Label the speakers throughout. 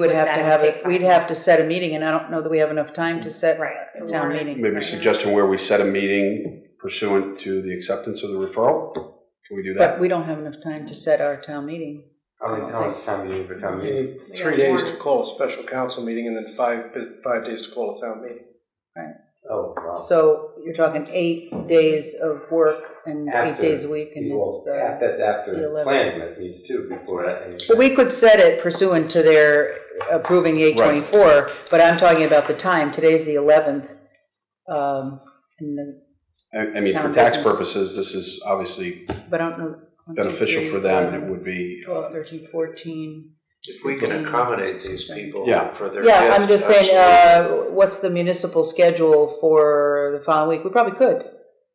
Speaker 1: Would
Speaker 2: Would
Speaker 1: have to
Speaker 2: that
Speaker 1: have
Speaker 2: take
Speaker 1: it, we'd
Speaker 2: time?
Speaker 1: have to set a meeting, and I don't know that we have enough time to set
Speaker 2: Right.
Speaker 1: a town meeting.
Speaker 3: Maybe a suggestion where we set a meeting pursuant to the acceptance of the referral? Can we do
Speaker 1: But
Speaker 3: that?
Speaker 1: we don't have enough time to set our town meeting.
Speaker 4: How many, how much time do you need for town
Speaker 5: You
Speaker 4: meeting?
Speaker 5: need three days to call a special council meeting and then five, bus- five days to call a town meeting.
Speaker 4: Oh, wow.
Speaker 1: So you're talking eight days of work and eight
Speaker 4: After-
Speaker 1: days a week, and
Speaker 4: Well,
Speaker 1: it's,
Speaker 4: that-
Speaker 1: uh,
Speaker 4: That's
Speaker 1: the
Speaker 4: after
Speaker 1: 11th.
Speaker 4: planning that needs to, before that.
Speaker 1: but we could set it pursuant to their approving eight twenty-four, but I'm talking about the time, today's the eleventh. Um, and the-
Speaker 3: I, I mean, for
Speaker 1: Town
Speaker 3: tax
Speaker 1: business.
Speaker 3: purposes, this is obviously
Speaker 1: but I don't know. one, two,
Speaker 3: beneficial
Speaker 1: three,
Speaker 3: for them, and
Speaker 1: four,
Speaker 3: it would be,
Speaker 1: Twelve, thirteen, fourteen.
Speaker 6: If we can accommodate these people
Speaker 3: Yeah.
Speaker 6: for their
Speaker 1: Yeah, I'm
Speaker 6: gifts,
Speaker 1: just saying, uh,
Speaker 6: absolutely.
Speaker 1: what's the municipal schedule for the following week? We probably could.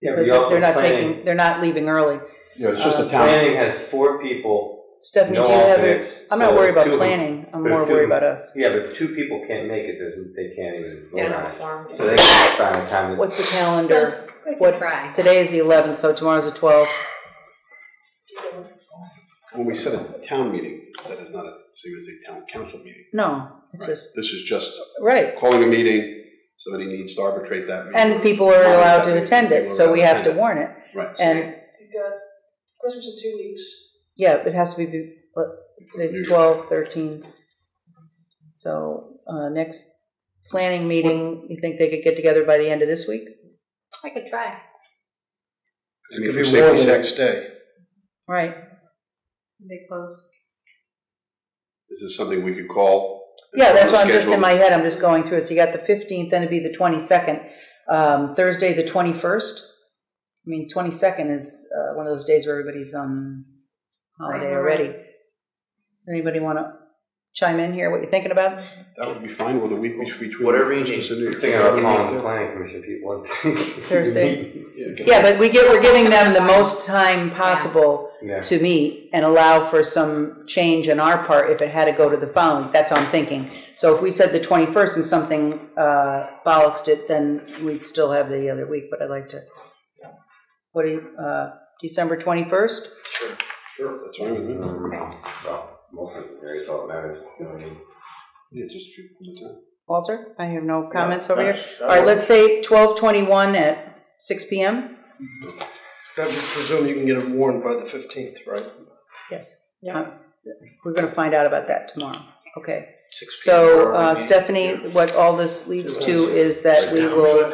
Speaker 4: Yeah,
Speaker 1: Because
Speaker 4: we
Speaker 1: if
Speaker 4: also
Speaker 1: they're not
Speaker 4: planning,
Speaker 1: taking, they're not leaving early.
Speaker 3: you know, it's just a
Speaker 1: Uh,
Speaker 3: town.
Speaker 4: planning has four people,
Speaker 1: Stephanie, do
Speaker 4: no
Speaker 1: you have
Speaker 4: alternates.
Speaker 1: it? I'm not
Speaker 4: so
Speaker 1: worried
Speaker 4: two
Speaker 1: about
Speaker 4: of them-
Speaker 1: planning, I'm
Speaker 4: there's
Speaker 1: more
Speaker 4: two
Speaker 1: worried
Speaker 4: of them.
Speaker 1: about us.
Speaker 4: Yeah, but if two people can't make it, there's- they can't even vote on it.
Speaker 2: form.
Speaker 4: So they can't find time. to-
Speaker 1: What's the calendar?
Speaker 2: We
Speaker 1: What-
Speaker 2: could try.
Speaker 1: Today is the eleventh, so tomorrow's the twelfth.
Speaker 3: When we set a town meeting, that is not a, same as a town council meeting.
Speaker 1: No, it's just,
Speaker 3: This is just
Speaker 1: right.
Speaker 3: calling a meeting, somebody needs to arbitrate that meeting.
Speaker 1: And people are allowed to attend it, so we have to
Speaker 3: People are
Speaker 1: warn it.
Speaker 3: Right.
Speaker 1: And,
Speaker 7: You've got Christmas in two weeks.
Speaker 1: yeah, it has to be, but it's twelve, thirteen. So, uh, next planning meeting, you think they could get together by the end of this week?
Speaker 2: I could try.
Speaker 3: I
Speaker 5: It's
Speaker 3: mean,
Speaker 5: gonna
Speaker 3: for
Speaker 5: be warm
Speaker 3: safety's
Speaker 5: the
Speaker 3: sake,
Speaker 5: next day.
Speaker 1: Right.
Speaker 2: They close.
Speaker 3: this is something we could call.
Speaker 1: Yeah, that's why I'm just
Speaker 3: Schedule.
Speaker 1: in my head, I'm just going through it. So you got the fifteenth, then it'd be the twenty-second, um, Thursday, the twenty-first. I mean, twenty-second is, uh, one of those days where everybody's on holiday already. Anybody wanna chime in here, what you're thinking about?
Speaker 3: That would be fine with a week between.
Speaker 6: Whatever you
Speaker 3: Christmas and New Year's.
Speaker 4: Thinking about calling the planning commission people.
Speaker 1: Thursday.
Speaker 3: Yeah.
Speaker 1: Yeah, but we give, we're giving them the most time possible
Speaker 4: Yeah.
Speaker 1: to meet and allow for some change on our part if it had to go to the following, that's how I'm thinking. So if we said the twenty-first and something, uh, bollocksed it, then we'd still have the other week, but I'd like to. What do you, uh, December twenty-first?
Speaker 3: Sure, that's fine with me.
Speaker 4: Um, Well, most of the areas all matters, you know what I mean?
Speaker 3: Yeah, just shoot from the top.
Speaker 1: Walter, I have no comments over here.
Speaker 5: That's-
Speaker 1: All right, let's say twelve twenty-one at six P M?
Speaker 5: I would presume you can get it warned by the fifteenth, right?
Speaker 1: Yes. Uh, We're gonna find out about that tomorrow, okay?
Speaker 6: Six
Speaker 1: So,
Speaker 6: people are
Speaker 1: uh,
Speaker 6: already-
Speaker 1: Stephanie, what all this leads to is that we will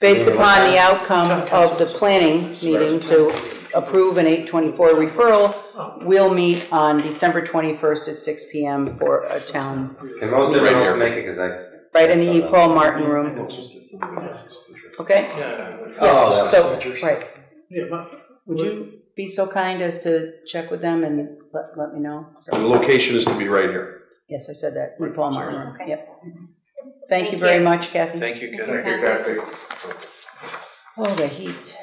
Speaker 1: based upon the outcome of the planning meeting to approve an 824
Speaker 5: Oh.
Speaker 1: referral, we'll meet on December 21st at 6 PM for a town,
Speaker 4: Can most of
Speaker 3: Right
Speaker 4: them
Speaker 3: here.
Speaker 4: not make it, cause I.
Speaker 1: right in the E. Paul Martin room,
Speaker 3: It's just- it's not- it's just- it's-
Speaker 1: okay?
Speaker 4: Oh,
Speaker 1: Yeah,
Speaker 4: that's
Speaker 1: so, right.
Speaker 5: Yeah, my-
Speaker 1: Would you be so kind as to check with them and let, let me know? So-
Speaker 3: The location is to be right here.
Speaker 1: Yes, I said that, E. Paul Martin room,
Speaker 2: Okay.
Speaker 1: yep. Thank you
Speaker 2: Thank
Speaker 1: very
Speaker 2: you.
Speaker 1: much, Kathy.
Speaker 6: Thank you, Ken.
Speaker 2: Thank you,
Speaker 1: Oh, the heat.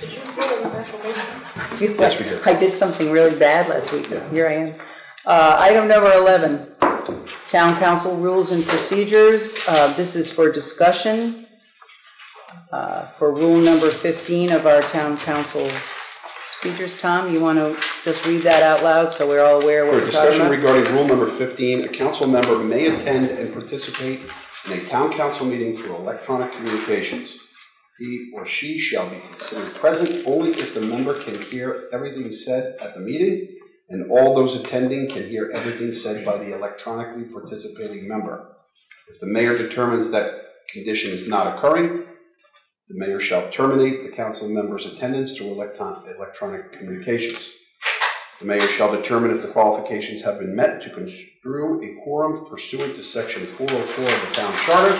Speaker 7: Did you get an affirmation?
Speaker 3: Yes, we did.
Speaker 1: I did something really bad last week, but here I am. Uh, Item number 11, Town Council Rules and Procedures. Uh, This is for discussion uh, for rule number 15 of our Town Council procedures. Tom, you want to just read that out loud so we're all aware what
Speaker 3: For
Speaker 1: we're talking
Speaker 3: discussion
Speaker 1: about?
Speaker 3: regarding rule number 15, a council member may attend and participate in a town council meeting through electronic communications. He or she shall be considered present only if the member can hear everything said at the meeting, and all those attending can hear everything said by the electronically participating member. If the mayor determines that condition is not occurring, the mayor shall terminate the council member's attendance through electron- electronic communications. The mayor shall determine if the qualifications have been met to construe a quorum pursuant to section 404 of the town charter.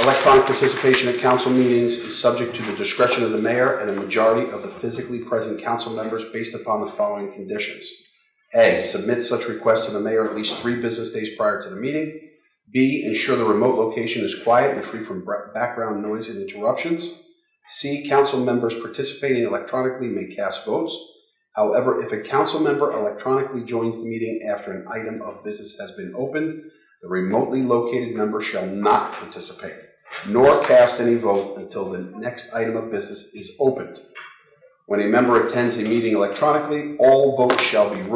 Speaker 3: Electronic participation at council meetings is subject to the discretion of the mayor and a majority of the physically present council members based upon the following conditions. A, submit such request to the mayor at least three business days prior to the meeting. B, ensure the remote location is quiet and free from bra- background noise and interruptions. C, council members participating electronically may cast votes. However, if a council member electronically joins the meeting after an item of business has been opened, the remotely located member shall not participate, nor cast any vote until the next item of business is opened. When a member attends a meeting electronically, all votes shall be